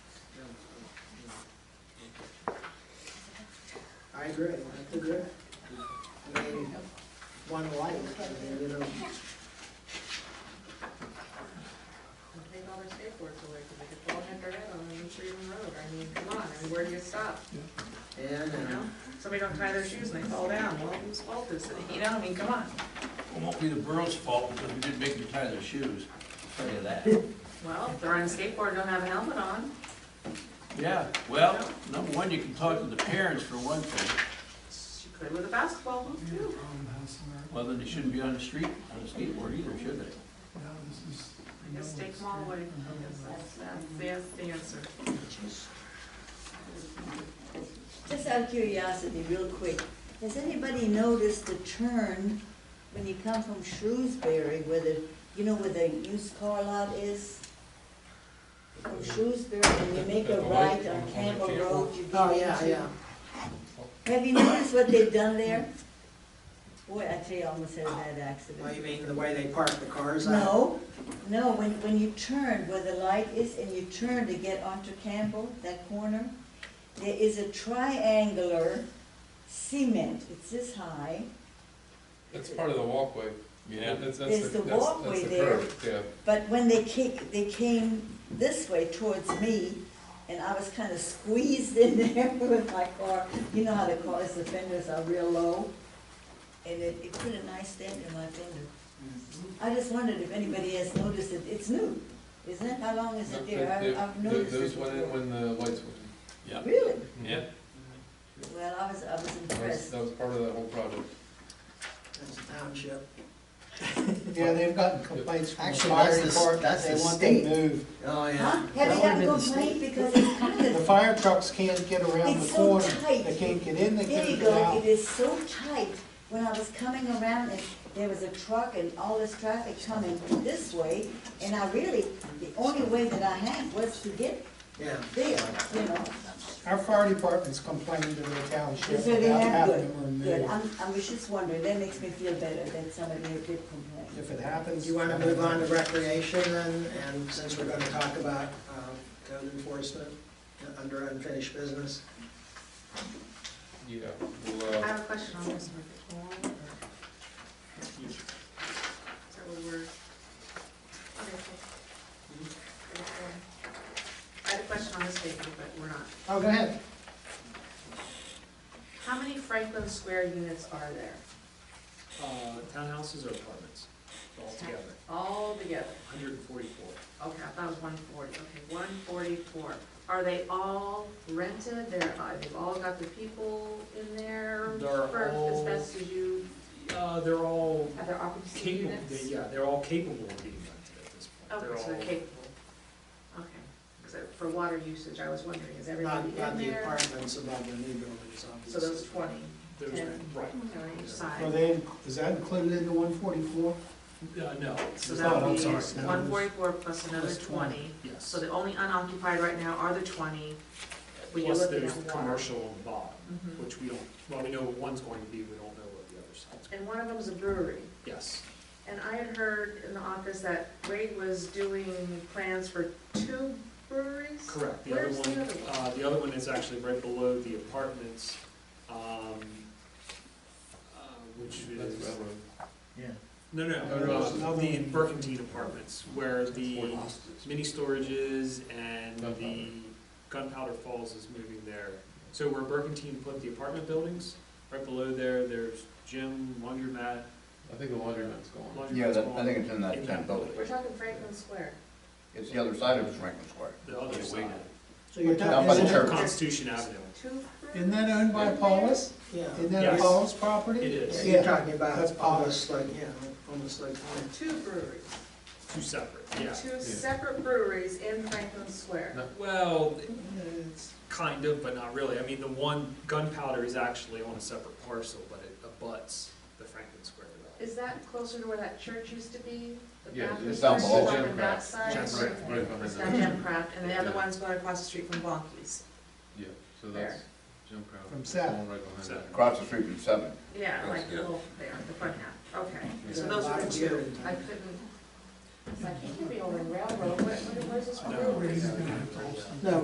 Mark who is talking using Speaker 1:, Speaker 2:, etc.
Speaker 1: I agree, I agree. I mean, one life, I mean, you know,
Speaker 2: Take all their skateboards away, because they could fall head to head on an untreated road, I mean, come on, I mean, where do you stop,
Speaker 1: and,
Speaker 2: you
Speaker 1: uh,
Speaker 2: know? Somebody don't tie their shoes and they fall down, well, whose fault is it, you know, I mean, come on.
Speaker 3: It won't be the borough's fault because we didn't make them tie their shoes, I'll tell you that.
Speaker 2: Well, if they're on a skateboard, and don't have a helmet on,
Speaker 3: Yeah, well, number one, you can talk to the parents for one thing,
Speaker 2: she could with a basketball hoop too.
Speaker 3: well, then they shouldn't be on the street, on a skateboard either, should they?
Speaker 2: I guess take them all away, I guess that's, that's, that's the answer.
Speaker 4: Just out of curiosity, real quick, has anybody noticed the turn when you come from Shrewsbury where the, you know where the used car lot is? From Shrewsbury, and you make a right on Campbell Road, you
Speaker 1: oh,
Speaker 4: go
Speaker 1: yeah, yeah.
Speaker 4: Have you noticed what they've done there? Boy, I tell you, I almost had a bad
Speaker 1: Ah. Well, you
Speaker 4: accident.
Speaker 1: mean the way they park the cars out?
Speaker 4: No, no, when, when you turn where the light is and you turn to get onto Campbell, that corner, there is a triangular cement, it's this high,
Speaker 5: That's part of the walkway. That's- that's
Speaker 4: There's the
Speaker 5: that's- that's
Speaker 4: walkway
Speaker 5: the
Speaker 4: there.
Speaker 5: curve, Yeah.
Speaker 4: But when they came, they came this way towards me, and I was kind of squeezed in there with my car. You know how the cars, the fenders are real low, and it, it put a nice dent in my fender.
Speaker 6: Mm-hmm.
Speaker 4: I just wondered if anybody has noticed it. It's new, isn't it? How long is it there?
Speaker 5: Th- th-
Speaker 4: I- uh, I've
Speaker 5: th-
Speaker 4: noticed
Speaker 5: Those
Speaker 4: it.
Speaker 5: went in
Speaker 4: before.
Speaker 5: when the lights went
Speaker 3: Yeah.
Speaker 4: Really?
Speaker 3: Yeah.
Speaker 4: Well, I was, I was
Speaker 5: in. That was,
Speaker 4: impressed.
Speaker 5: that was part of that whole project.
Speaker 1: That's the township.
Speaker 7: Yeah, they've gotten complaints from the
Speaker 6: Actually,
Speaker 7: fire
Speaker 6: that's the s-
Speaker 7: department,
Speaker 6: that's
Speaker 7: they
Speaker 6: the
Speaker 7: want them
Speaker 6: state.
Speaker 7: moved.
Speaker 1: Oh,
Speaker 4: Huh?
Speaker 1: yeah.
Speaker 4: Have you
Speaker 6: would've
Speaker 4: gotten
Speaker 6: been the
Speaker 4: complaint because it's kind
Speaker 7: The
Speaker 4: of,
Speaker 7: fire trucks can't get around
Speaker 4: It's
Speaker 7: the
Speaker 4: so
Speaker 7: corner,
Speaker 4: tight.
Speaker 7: they can't get in, they
Speaker 4: there you
Speaker 7: can't get
Speaker 4: go,
Speaker 7: out.
Speaker 4: it is so tight. When I was coming around and there was a truck and all this traffic coming this way, and I really, the only way that I had was to get
Speaker 1: Yeah.
Speaker 4: there, you know.
Speaker 7: Our fire department's complaining to the township
Speaker 4: So they
Speaker 7: about
Speaker 4: have,
Speaker 7: having
Speaker 4: good,
Speaker 7: them
Speaker 4: good.
Speaker 7: removed.
Speaker 4: I'm, I was just wondering, that makes me feel better that somebody had did complain.
Speaker 7: If it happens. uh,
Speaker 1: You wanna move on to recreation and, and since we're gonna talk about, um, code enforcement uh, under unfinished business?
Speaker 5: Yeah. Well,
Speaker 2: I
Speaker 5: uh,
Speaker 2: have a question on this one. So we're, okay, cool. I had a question on this paper, but we're not.
Speaker 1: Oh, go ahead.
Speaker 2: How many Franklin Square units are there
Speaker 6: Uh, townhouses or apartments, altogether,
Speaker 2: all together?
Speaker 6: hundred and forty-four.
Speaker 2: Okay, I thought it was one forty, okay, one forty-four. Are they all rented, they're, uh, they've all got the people in there?
Speaker 6: They're
Speaker 2: for- As
Speaker 6: all-
Speaker 2: best as you,
Speaker 6: Uh, they're all
Speaker 2: have their occupancy
Speaker 6: capable,
Speaker 2: units?
Speaker 6: they- yeah, they're all capable of being rented at this point.
Speaker 2: Okay, Oh, so
Speaker 6: all-
Speaker 2: they're capable. Okay, because for water usage, I was wondering, is everybody
Speaker 1: Not, not
Speaker 2: in
Speaker 1: the
Speaker 2: there?
Speaker 1: apartments above the new buildings,
Speaker 2: So
Speaker 1: obviously.
Speaker 2: those twenty,
Speaker 6: There's,
Speaker 2: and-
Speaker 6: right,
Speaker 2: you know, each
Speaker 7: Are
Speaker 2: side.
Speaker 7: they, is that included in the one forty-four?
Speaker 6: uh, no.
Speaker 2: So
Speaker 6: it's
Speaker 2: that
Speaker 6: not-
Speaker 2: would
Speaker 7: I'm
Speaker 2: be
Speaker 7: sorry, no,
Speaker 2: one forty-four plus another
Speaker 7: plus 20.
Speaker 2: twenty.
Speaker 6: Yes.
Speaker 2: So the only unoccupied right now are the twenty. when you're
Speaker 6: Plus
Speaker 2: looking
Speaker 6: there's
Speaker 2: at water.
Speaker 6: commercial involved,
Speaker 2: Mhm.
Speaker 6: which we don't, well, we know what one's going to be, we don't know what the other side's.
Speaker 2: And one of them's a brewery.
Speaker 6: Yes,
Speaker 2: And I had heard in the office that Ray was doing plans for two breweries?
Speaker 6: correct. The other
Speaker 2: Where's the
Speaker 6: one,
Speaker 2: other one?
Speaker 6: uh, the other one is actually right below the apartments, um, uh, which
Speaker 5: that's
Speaker 6: is.
Speaker 5: railroad.
Speaker 6: No, no,
Speaker 7: No, no, it's
Speaker 6: uh,
Speaker 7: another
Speaker 6: the
Speaker 7: one.
Speaker 6: Burkentine Apartments, where
Speaker 5: Fort
Speaker 6: the
Speaker 5: Austin's.
Speaker 6: mini storages and the
Speaker 5: Gunpowder.
Speaker 6: Gunpowder Falls is moving there. So where Burkentine put the apartment buildings, right below there, there's gym, laundromat,
Speaker 5: I think the laundromat's gone.
Speaker 6: laundromat's
Speaker 8: Yeah, that,
Speaker 6: gone.
Speaker 8: I think it's in that
Speaker 6: In
Speaker 8: same
Speaker 6: that
Speaker 8: building.
Speaker 2: We're talking Franklin Square.
Speaker 8: It's the other side of Franklin Square.
Speaker 6: The other
Speaker 3: Yeah,
Speaker 6: side,
Speaker 7: So you're
Speaker 8: Down by the
Speaker 7: talking, isn't
Speaker 8: church.
Speaker 7: it-
Speaker 6: Constitution Avenue.
Speaker 2: Two
Speaker 7: isn't
Speaker 2: breweries?
Speaker 7: that owned by Paulus?
Speaker 1: Yeah.
Speaker 7: Isn't that
Speaker 6: Yes.
Speaker 7: Paulus property?
Speaker 6: It
Speaker 1: Yeah,
Speaker 6: is,
Speaker 1: you're
Speaker 7: Yeah,
Speaker 1: talking about
Speaker 7: that's
Speaker 1: almost like, yeah, almost like,
Speaker 2: Two breweries.
Speaker 6: two separate, yeah.
Speaker 2: Two separate breweries in Franklin Square.
Speaker 5: No.
Speaker 6: Well,
Speaker 1: it's,
Speaker 6: kind of, but not really. I mean, the one Gunpowder is actually on a separate parcel, but it abuts the Franklin Square development.
Speaker 2: Is that closer to where that church used to be? The
Speaker 5: Yeah,
Speaker 2: Baptist
Speaker 8: it's down
Speaker 2: church
Speaker 8: below.
Speaker 2: is up
Speaker 5: Jim
Speaker 2: on that
Speaker 5: Craft.
Speaker 2: side?
Speaker 6: Jim
Speaker 5: Right, right behind
Speaker 2: It's
Speaker 5: that.
Speaker 2: down Jim Craft, and the other
Speaker 5: Yeah.
Speaker 2: one's going across the street from Bonkies.
Speaker 5: Yeah, so
Speaker 2: There.
Speaker 5: that's Jim Crow.
Speaker 7: From Seth.
Speaker 5: right behind
Speaker 6: Seth.
Speaker 5: that.
Speaker 8: Across the street from Seven.
Speaker 2: Yeah, like the
Speaker 8: Yeah.
Speaker 2: little there, the front half, okay.
Speaker 1: Yeah.
Speaker 2: So those are the
Speaker 1: Yeah.
Speaker 2: two. I couldn't, it's like, you could be over in railroad, what, what is this
Speaker 6: I know.
Speaker 2: brewery?
Speaker 7: No,